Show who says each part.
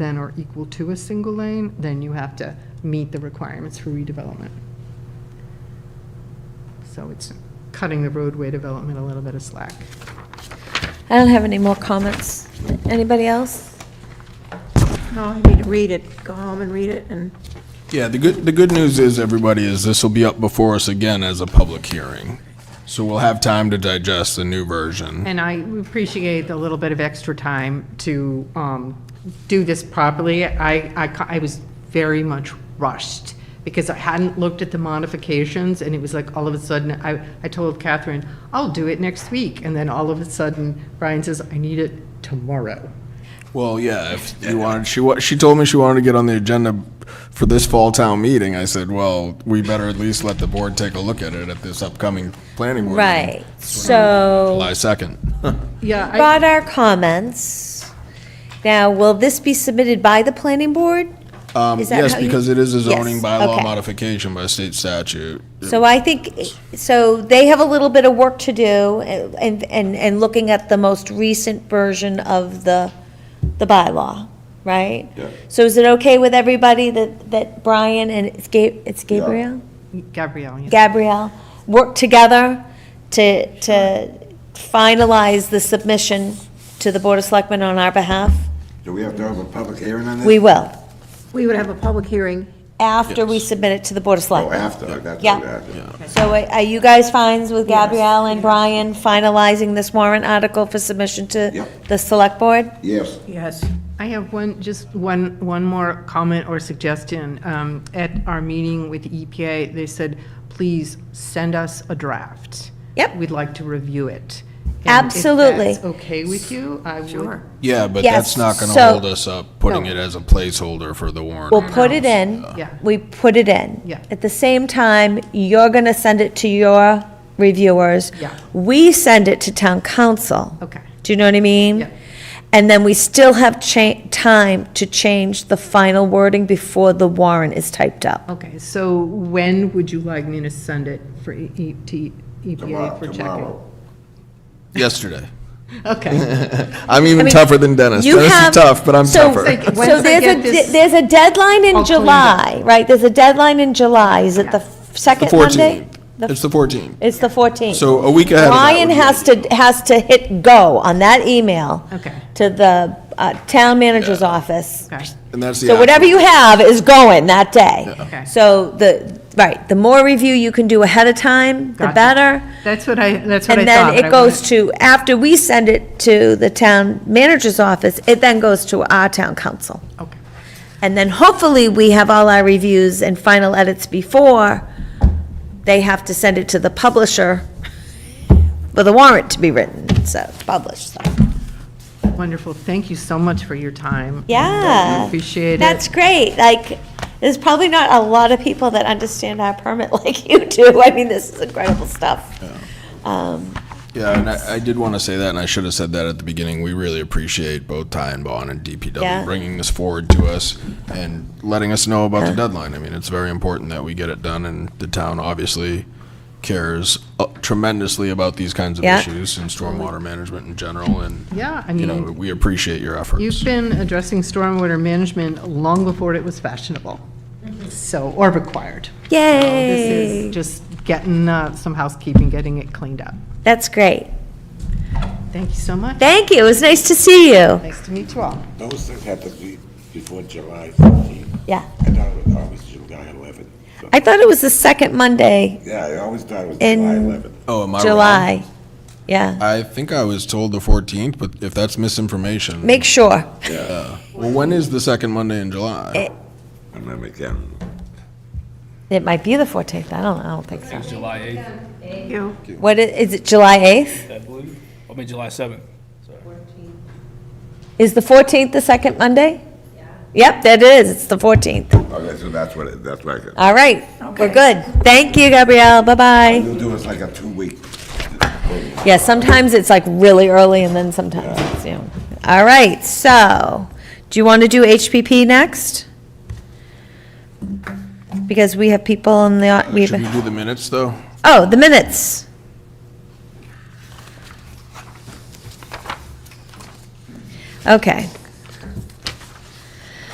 Speaker 1: than or equal to a single lane, then you have to meet the requirements for redevelopment. So it's cutting the roadway development a little bit of slack.
Speaker 2: I don't have any more comments. Anybody else?
Speaker 3: No, I need to read it, go home and read it, and
Speaker 4: Yeah, the good, the good news is, everybody, is this will be up before us again as a public hearing. So we'll have time to digest the new version.
Speaker 1: And I appreciate the little bit of extra time to um, do this properly. I, I ca- I was very much rushed because I hadn't looked at the modifications and it was like all of a sudden, I, I told Catherine, I'll do it next week. And then all of a sudden, Brian says, I need it tomorrow.
Speaker 4: Well, yeah, if you wanted, she, wa- she told me she wanted to get on the agenda for this fall town meeting. I said, well, we better at least let the board take a look at it at this upcoming planning board. meeting,
Speaker 2: Right, so
Speaker 4: July 2nd.
Speaker 1: Yeah. I-
Speaker 2: brought our comments. Now, will this be submitted by the planning board?
Speaker 4: Um,
Speaker 2: Is that
Speaker 4: yes,
Speaker 2: how you-
Speaker 4: because it is a zoning
Speaker 2: Yes,
Speaker 4: bylaw
Speaker 2: okay.
Speaker 4: modification by state statute.
Speaker 2: So I think, so they have a little bit of work to do eh, and, and, and looking at the most recent version of the, the bylaw, right?
Speaker 4: Yeah.
Speaker 2: So is it okay with everybody that, that Brian and it's Ga- it's Gabriel?
Speaker 1: Gabrielle, yeah.
Speaker 2: Gabrielle work together to, to finalize the submission to the Board of Selectmen on our behalf?
Speaker 5: Do we have to have a public hearing on this?
Speaker 2: We will,
Speaker 3: we would have a public hearing.
Speaker 2: after we submit it to the Board of
Speaker 5: Oh,
Speaker 2: Selectmen.
Speaker 5: after, that's
Speaker 2: Yeah.
Speaker 5: what happened.
Speaker 2: So uh, are are you guys fines with Gabrielle and Brian finalizing this warrant article for submission to
Speaker 5: Yep.
Speaker 2: the Select Board?
Speaker 5: Yes,
Speaker 3: Yes.
Speaker 1: I have one, just one, one more comment or suggestion. Um, At our meeting with EPA, they said, please send us a draft.
Speaker 2: Yep.
Speaker 1: We'd like to review it. And
Speaker 2: Absolutely.
Speaker 1: If that's okay with you, I would.
Speaker 3: Sure.
Speaker 4: Yeah, but
Speaker 2: Yes,
Speaker 4: that's not going to
Speaker 2: so-
Speaker 4: hold us up putting
Speaker 1: No.
Speaker 4: it as a placeholder for the warrant.
Speaker 2: We'll put it in.
Speaker 1: Yeah.
Speaker 2: We put it in.
Speaker 1: Yeah.
Speaker 2: At the same time, you're gonna send it to your reviewers.
Speaker 1: Yeah.
Speaker 2: We send it to town council.
Speaker 1: Okay.
Speaker 2: Do you know what I mean?
Speaker 1: Yeah.
Speaker 2: And then we still have cha- time to change the final wording before the warrant is typed up.
Speaker 1: Okay, so when would you like me to send it for E- E- to EPA for
Speaker 5: tomorrow,
Speaker 1: checking?
Speaker 5: uh, tomorrow.
Speaker 4: Yesterday.
Speaker 1: Okay,
Speaker 4: I'm even
Speaker 2: mean,
Speaker 4: tougher than Dennis.
Speaker 2: You
Speaker 4: Dennis
Speaker 2: have-
Speaker 4: is tough, but I'm
Speaker 2: so-
Speaker 4: tougher.
Speaker 1: Like, once I
Speaker 2: So there's
Speaker 1: get
Speaker 2: a,
Speaker 1: this-
Speaker 2: de- there's a deadline in
Speaker 1: I'll clean it
Speaker 2: July, right? There's a deadline in July. Is it the f-
Speaker 4: The
Speaker 2: second Monday?
Speaker 4: 14th. It's the 14th.
Speaker 2: It's the 14th.
Speaker 4: So a week ahead of that
Speaker 2: Brian
Speaker 4: would be-
Speaker 2: has to, has to hit go on that email.
Speaker 1: Okay.
Speaker 2: To the uh, town manager's
Speaker 4: Yeah.
Speaker 2: office.
Speaker 1: okay,
Speaker 4: And that's the.
Speaker 2: So whatever you have is going that day.
Speaker 1: Okay.
Speaker 2: So the, right, the more review you can do ahead of time, the
Speaker 1: Gotcha.
Speaker 2: better.
Speaker 1: that's what I, that's what I
Speaker 2: And
Speaker 1: thought.
Speaker 2: then
Speaker 1: but
Speaker 2: it
Speaker 1: I
Speaker 2: goes
Speaker 1: wanted-
Speaker 2: to, after we send it to the town manager's office, it then goes to our town council.
Speaker 1: Okay,
Speaker 2: And then hopefully, we have all our reviews and final edits before they have to send it to the publisher for the warrant to be written, so, published, so.
Speaker 1: wonderful, thank you so much for your time.
Speaker 2: Yeah.
Speaker 1: Appreciate it.
Speaker 2: That's great, like, there's probably not a lot of people that understand our permit like you do, I mean, this is incredible stuff. Um,
Speaker 4: Yeah, and I, I did want to say that, and I should have said that at the beginning. We really appreciate both Ty and Bond and DPW
Speaker 2: Yeah.
Speaker 4: bringing this forward to us and letting us know about the deadline. I mean, it's very important that we get it done, and the town obviously cares uh, tremendously about these kinds of
Speaker 2: Yeah.
Speaker 4: issues and stormwater management in general. And
Speaker 1: Yeah, I
Speaker 4: you
Speaker 1: mean.
Speaker 4: know,
Speaker 2: Mm-hmm.
Speaker 4: we appreciate your efforts.
Speaker 1: You've been addressing stormwater management long before it was fashionable, so, or required. This
Speaker 2: Yay,
Speaker 1: is just getting uh, some housekeeping, getting it cleaned up.
Speaker 2: that's great,
Speaker 1: Thank you so much.
Speaker 2: thank you, it was nice to see you,
Speaker 1: Nice to meet you all.
Speaker 5: Those things have to be before July 15th.
Speaker 2: yeah.
Speaker 5: I thought it was always July 11th. So-
Speaker 2: I thought it was the second Monday
Speaker 5: Yeah, I always thought it was
Speaker 2: In-
Speaker 5: July 11th.
Speaker 4: oh, am I wrong?
Speaker 2: July, yeah,
Speaker 4: I think I was told the 14th, but if that's misinformation,
Speaker 2: make sure.
Speaker 4: well, when is the second Monday in July?
Speaker 5: I remember again.
Speaker 2: It might be the 14th, I don't, I don't think so.
Speaker 6: July 8th,
Speaker 3: You,
Speaker 2: What, i- is it July 8th?
Speaker 6: I believe. I mean, July 7th.
Speaker 2: Is the 14th the second Monday? Yep, that is, it's the 14th.
Speaker 5: Okay, so that's what, it- that's like,
Speaker 2: All right, we're good. Thank you, Gabrielle, bye-bye.
Speaker 5: you'll do us like a two-week.
Speaker 2: Yeah, sometimes it's like really early and then sometimes it's, you know. All right, so, do you want to do HPP next? Because we have people in the, au- we
Speaker 4: Should we
Speaker 2: have,
Speaker 4: do the minutes though?
Speaker 2: oh, the minutes. Okay.